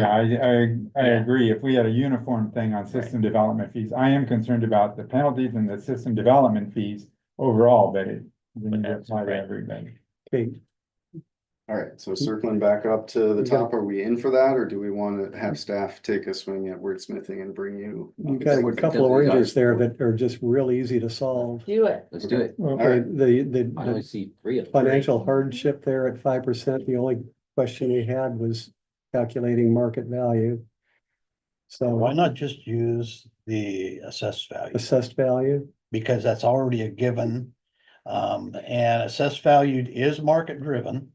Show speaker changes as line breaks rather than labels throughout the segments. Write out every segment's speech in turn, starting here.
Yeah, I, I, I
Yeah.
agree. If we had a uniform thing on system development fees, I am concerned about the penalties and the system development fees overall, but it. We need to
that's
apply to
right.
everybody.
Okay,
All right, so
Mm-hmm.
circling back up to the top, are we in for that, or do we want to have staff take a swing at wordsmithing and bring you?
you've got a couple of oranges there that are just real easy to solve.
Do it.
Let's do it.
Okay, the, the-
I only
the
see three of them.
financial hardship there at five percent, the only question we had was calculating market value.
Why
So
not just use the assessed value?
assessed value,
Because that's already a given. Um, and assessed value is market driven.
No,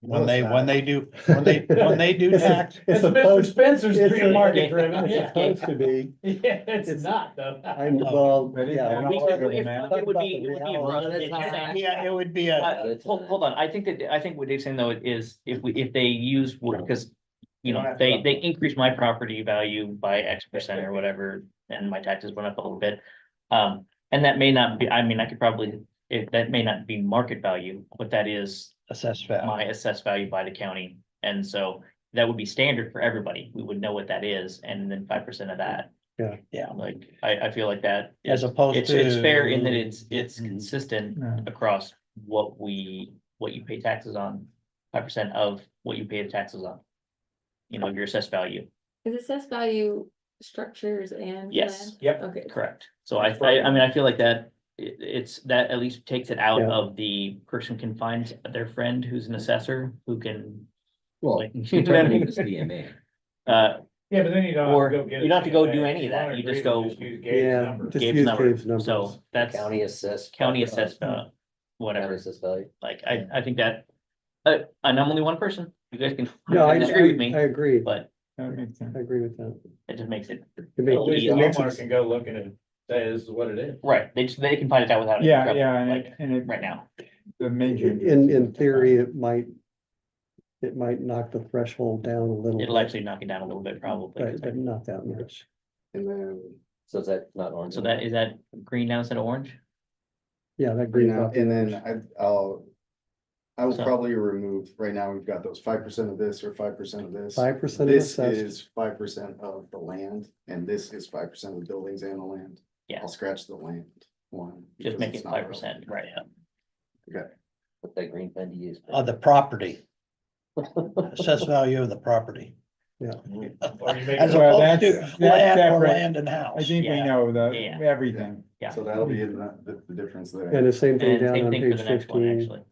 When
it's
they, when
not.
they do, when they, when they do
It's a-
tax,
it's
Mr.
supposed,
Spencer's
it's a-
market
it's supposed to be,
Yeah, it's
It's-
not though.
I'm, well,
But it-
yeah.
I don't
we're-
think it'll matter.
talking
It would
about
be-
the
it would be
reality.
run at a
Yeah,
time.
yeah, it would be a,
Uh, Hold, hold on, I think that, I think what Dave's saying though is if we, if they use, because, you know, they, they increased my property value by X percent or whatever, and my taxes went up a little bit. Um, and that may not be, I mean, I could probably, it, that may not be market value, but that is
assessed value.
my assessed value by the county. And so that would be standard for everybody, we would know what that is, and then five percent of that.
Yeah.
Yeah, like, I, I feel like that.
As
is-
opposed
It's, it's fair in that
to-
it's, it's
Mhm.
consistent
Yeah.
across what we, what you pay taxes on, five percent of what you pay the taxes on. You know, your assessed value,
Is assessed value structures and?
yes,
plan?
yep,
Okay,
correct, so I, I, I mean, I feel like that, it, it's, that at least takes it out
Yeah.
of the person can find their friend who's an assessor, who can.
Well,
like,
You turn it into CMA.
Uh,
Yeah, but then you don't have
or
to go get.
you don't have to
a
go
CFA.
do
If
any of that,
wanna
you
agree,
just
we
go
use Gabe's
Yeah,
number.
just
Gabe's
use
number,
Gabe's numbers.
so that's
County assessed.
county assessed, uh,
County
whatever,
assessed value.
like, I, I think that. Uh, and I'm only one person, you guys can
No, I, I I
disagree with me,
agree,
but
That makes sense.
I agree with that.
it just makes it
It
Yeah,
makes-
At least
Yeah.
it makes
homeowner
it-
can go look at it and say, this is what it is.
Right, they just, they can find it out without. it,
Yeah,
right,
yeah, and
Like,
it, and it,
right now,
the major.
In, in theory, it might, it might knock the threshold down a little.
it'll
bit,
actually knock it down a little bit probably.
But, but not that much.
And then,
So is that not orange?
So that, is that green now instead of orange?
Yeah, that
you
green.
know, and then I, I'll. I will
So-
probably remove, right now, we've got those five percent of this or five percent of this.
Five percent of
This
assessed.
is five percent of the land, and this is five percent of the buildings and the land.
Yeah.
I'll scratch the land one. because
Just make
it's
it
not
five percent, right?
What that green fund you use.
Uh,
Of the property. Assessed value of the property.
Or you make
As
it-
Well,
opposed to
that's- that's
land or
separate.
land and house.
I think we
Yeah.
know the,
Yeah.
everything.
Yeah.
relevant. So that'll be in the, the- the difference there.
And the same thing
And
down
same
on
thing for
page
the next one,
fifteen.
actually.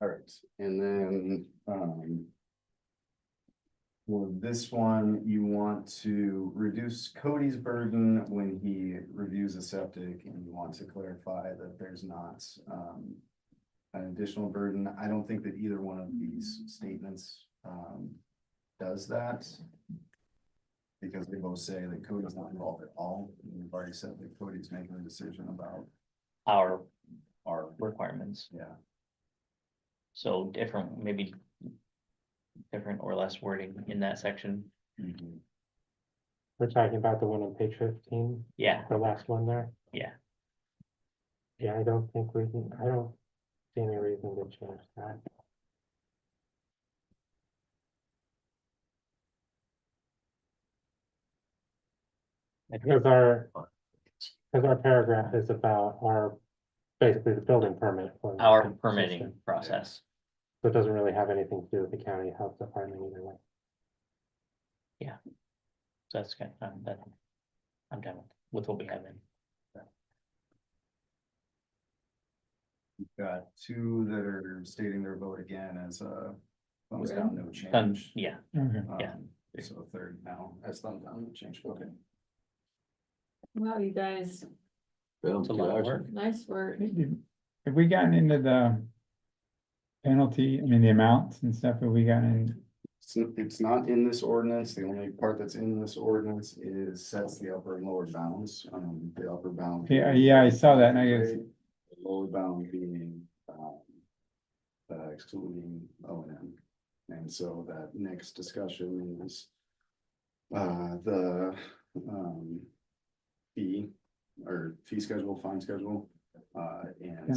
All right, and then, um. Well, this one, you want to reduce Cody's burden when he reviews a septic and you want to clarify that there's not, um. An additional burden. I don't think that either one of these statements, um, does that. Because they both say that Cody's not involved at all. and We've already said that Cody's making a decision about
Our
our,
requirements,
yeah.
so different, maybe. Different or less wording in that section,
We're talking about the one on page fifteen,
yeah,
the last one there?
Yeah.
Yeah, I don't think we can, I don't see any reason to change that. Because our, because our paragraph is about our, basically the building permit. for the
our
system.
permitting process.
So it doesn't really have anything to do with the county health department either way.
So that's kind of, that, I'm done with what we have in.
Got two that are stating their vote again as a thumbs down, no
Um,
change.
yeah,
Okay.
yeah.
Um, So a third now, as thumbs down, no change, okay.
wow, you guys,
Boom,
it's a
two
lot of
hours.
work.
nice work.
Have we gotten into the penalty, I mean, the amounts and stuff that we got in?
It's, n- it's not in this ordinance, the only part that's in this ordinance is sets the upper and lower bounds, um, the upper bound.
Yeah, yeah, I saw that and I guess,
The Lower bound being, um, uh, excluding O and M. And so that next discussion is uh, the, um, fee or fee schedule, fine schedule,
Uh, and
Yeah.